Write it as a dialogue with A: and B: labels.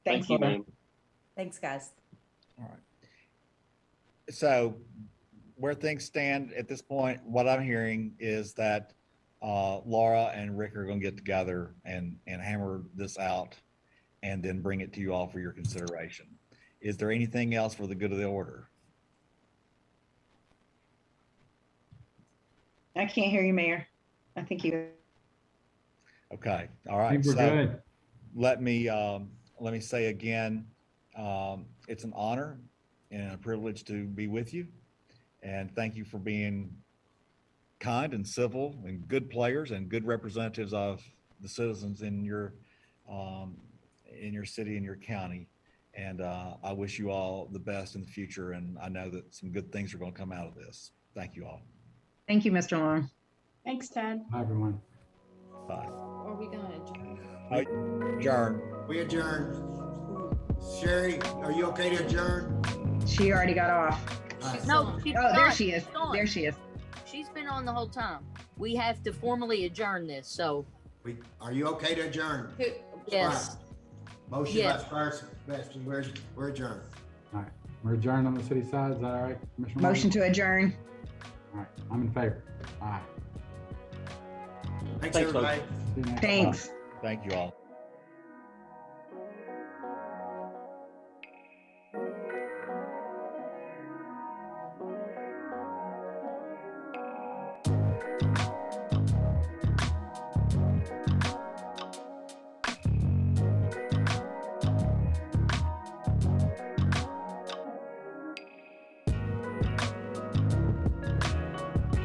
A: Thanks,
B: Thank you,
A: Laura.
B: ma'am.
A: Thanks, guys.
C: All right. So where things stand at this point, what I'm hearing is that uh, Laura and Rick are going to get together and, and hammer this out and then bring it to you all for your consideration. Is there anything else for the good of the order?
A: I can't hear you, Mayor. I think you,
C: Okay, all
D: I
C: right.
D: think we're
C: So-
D: good.
C: let me, um, let me say again, um, it's an honor and a privilege to be with you. And thank you for being kind and civil and good players and good representatives of the citizens in your, um, in your city and your county. And, uh, I wish you all the best in the future. And I know that some good things are going to come out of this. Thank you all.
E: Thank you, Mr. Long.
F: Thanks, Ted.
D: Hi, everyone.
C: Bye.
G: Are we gonna adjourn?
C: Adjourn.
H: We adjourn. Sherry, are you okay to adjourn?
E: She already got off.
H: Alright.
I: No, she's
E: Oh, there
I: gone.
E: she is.
I: gone.
E: There she is.
I: She's been on the whole time. We have to formally adjourn this, so
H: We, are you okay to adjourn?
G: Who,
I: yes.
H: Motion by
I: Yes.
H: Spurs, Beston, we're, we're adjourned.
D: We're adjourned on the city side. Is that all right? Commissioner Morgan?
E: Motion to adjourn.
D: All right, I'm in favor. Aye.
H: Thanks,
B: Thanks, folks.
H: everybody.
D: See you next time.
E: Thanks.
C: Thank you all.